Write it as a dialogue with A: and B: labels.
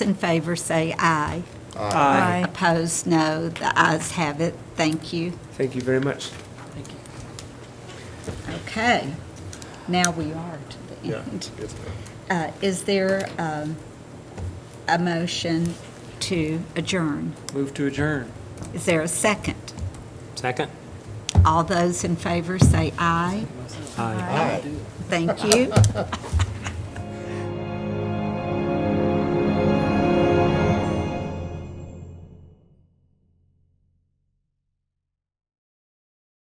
A: in favor say aye.
B: Aye.
A: Opposed, no. The ayes have it. Thank you.
B: Thank you very much.
A: Okay. Now we are to the
C: Yeah.
A: end. Uh, Is there um, a motion to adjourn?
B: Move to adjourn.
A: Is there a second?
D: Second?
A: All those in favor say aye.
C: Aye.
A: Thank you.